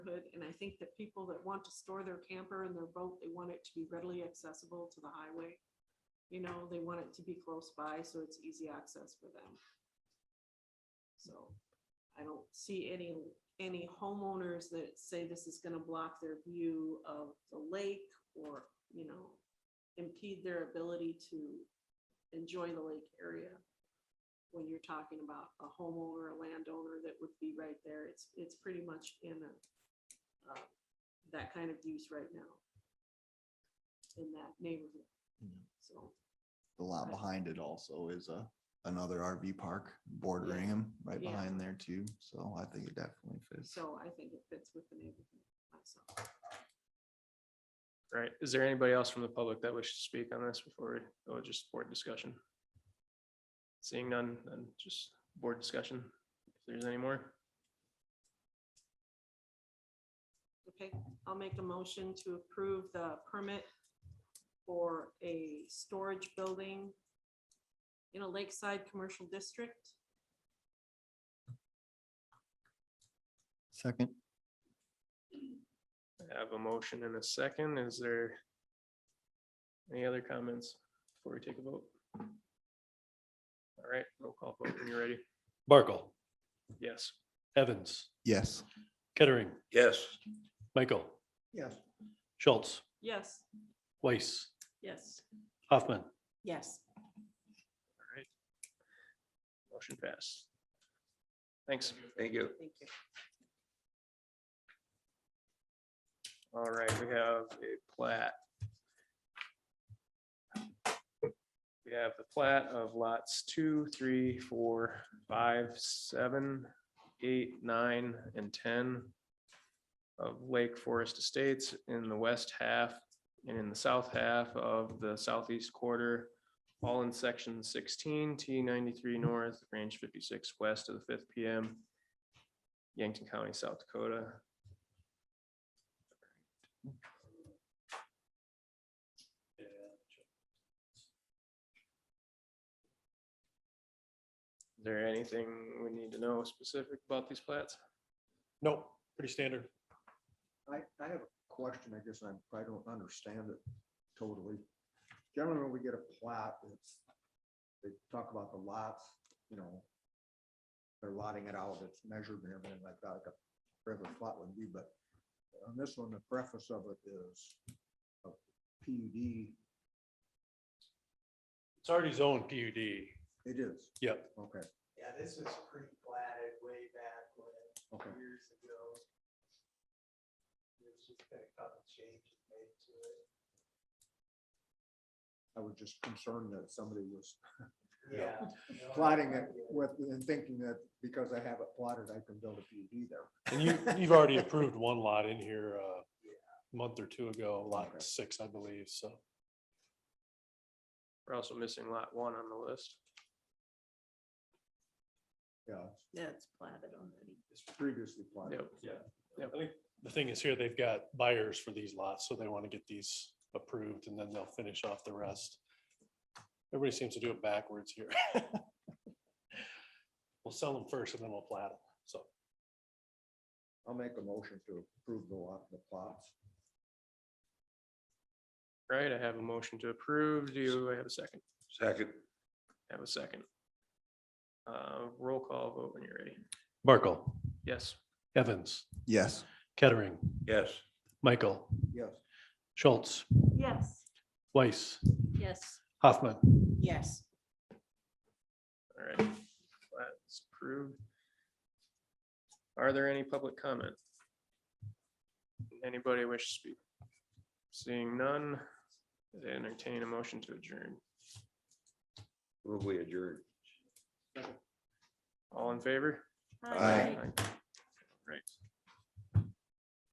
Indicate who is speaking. Speaker 1: good, and I think that people that want to store their camper and their boat, they want it to be readily accessible to the highway. You know, they want it to be close by, so it's easy access for them. So I don't see any, any homeowners that say this is gonna block their view of the lake or, you know, impede their ability to enjoy the lake area when you're talking about a homeowner, a landowner that would be right there, it's, it's pretty much in a, uh, that kind of use right now in that neighborhood.
Speaker 2: Yeah.
Speaker 1: So,
Speaker 2: The lot
Speaker 1: Right.
Speaker 2: behind it also is a, another RV park bordering them right
Speaker 1: Yeah.
Speaker 2: behind there too. So I think it definitely fits.
Speaker 1: so I think it fits with the neighborhood myself.
Speaker 3: Right. Is there anybody else from the public that wishes to speak on this before we go to just board discussion? Seeing none, then just board discussion, if there's any more.
Speaker 1: Okay, I'll make a motion to approve the permit for a storage building in a lakeside commercial district.
Speaker 2: Second.
Speaker 3: I have a motion and a second. Is there any other comments before we take a vote? All right, roll call vote when you're ready.
Speaker 4: Barkle,
Speaker 3: Yes.
Speaker 4: Evans,
Speaker 2: Yes.
Speaker 4: Kettering,
Speaker 5: Yes.
Speaker 4: Michael.
Speaker 5: Yes.
Speaker 4: Schultz,
Speaker 1: Yes,
Speaker 4: Weiss,
Speaker 1: yes.
Speaker 4: Hoffman,
Speaker 1: Yes.
Speaker 3: Motion passed. Thanks.
Speaker 5: Thank you.
Speaker 1: Thank you.
Speaker 3: All right, we have a plat. We have the plat of lots two, three, four, five, seven, eight, nine, and ten of Lake Forest Estates in the west half and in the south half of the southeast quarter, all in section sixteen, T ninety-three north, range fifty-six west of the fifth PM, Yankton County, South Dakota. Is there anything we need to know specific about these plats?
Speaker 4: Nope, pretty standard.
Speaker 6: I, I have a question, I guess I probably don't understand it totally. Generally, when we get a plat, it's, they talk about the lots, you know, they're lotting it out, it's measured and everything like that, like a regular plot would be, but on this one, the preface of it is E a PUD,
Speaker 4: It's already zoned PUD.
Speaker 6: it is,
Speaker 4: Yep,
Speaker 6: okay,
Speaker 7: Yeah, this was pre-platted way back when,
Speaker 6: okay,
Speaker 7: years ago. There's just been a couple changes made to it.
Speaker 6: I was just concerned that somebody was
Speaker 7: Oh, Yeah.
Speaker 6: plotting it with, and thinking that because I have it plotted, I can build a PUD there.
Speaker 4: and you, you've already approved one lot in here uh, a month or two ago,
Speaker 6: Okay.
Speaker 4: lot six, I believe, so.
Speaker 3: We're also missing lot one on the list.
Speaker 6: Yeah,
Speaker 1: That's platted already.
Speaker 6: it's previously plotted.
Speaker 3: Yep.
Speaker 4: I think The thing is here, they've got buyers for these lots, so they want to get these approved and then they'll finish off the rest. Everybody seems to do it backwards here. We'll sell them first and then we'll plat them, so.
Speaker 6: I'll make a motion to approve the lot, the plots.
Speaker 3: Right, I have a motion to approve. Do I have a second?
Speaker 5: Second.
Speaker 3: I Have a second. Uh, roll call vote when you're ready.
Speaker 4: Barkle,
Speaker 3: Yes.
Speaker 4: Evans,
Speaker 2: Yes.
Speaker 4: Kettering,
Speaker 5: Yes.
Speaker 4: Michael,
Speaker 6: Yes,
Speaker 4: Schultz,
Speaker 1: Yes.
Speaker 4: Weiss,
Speaker 1: Yes.
Speaker 4: Hoffman.
Speaker 1: Yes.
Speaker 3: All right. That's approved. Are there any public comment? Anybody wish to speak? Seeing none, I entertain a motion to adjourn.
Speaker 5: Move we adjourn.
Speaker 3: All in favor?
Speaker 2: Aye.
Speaker 3: Right.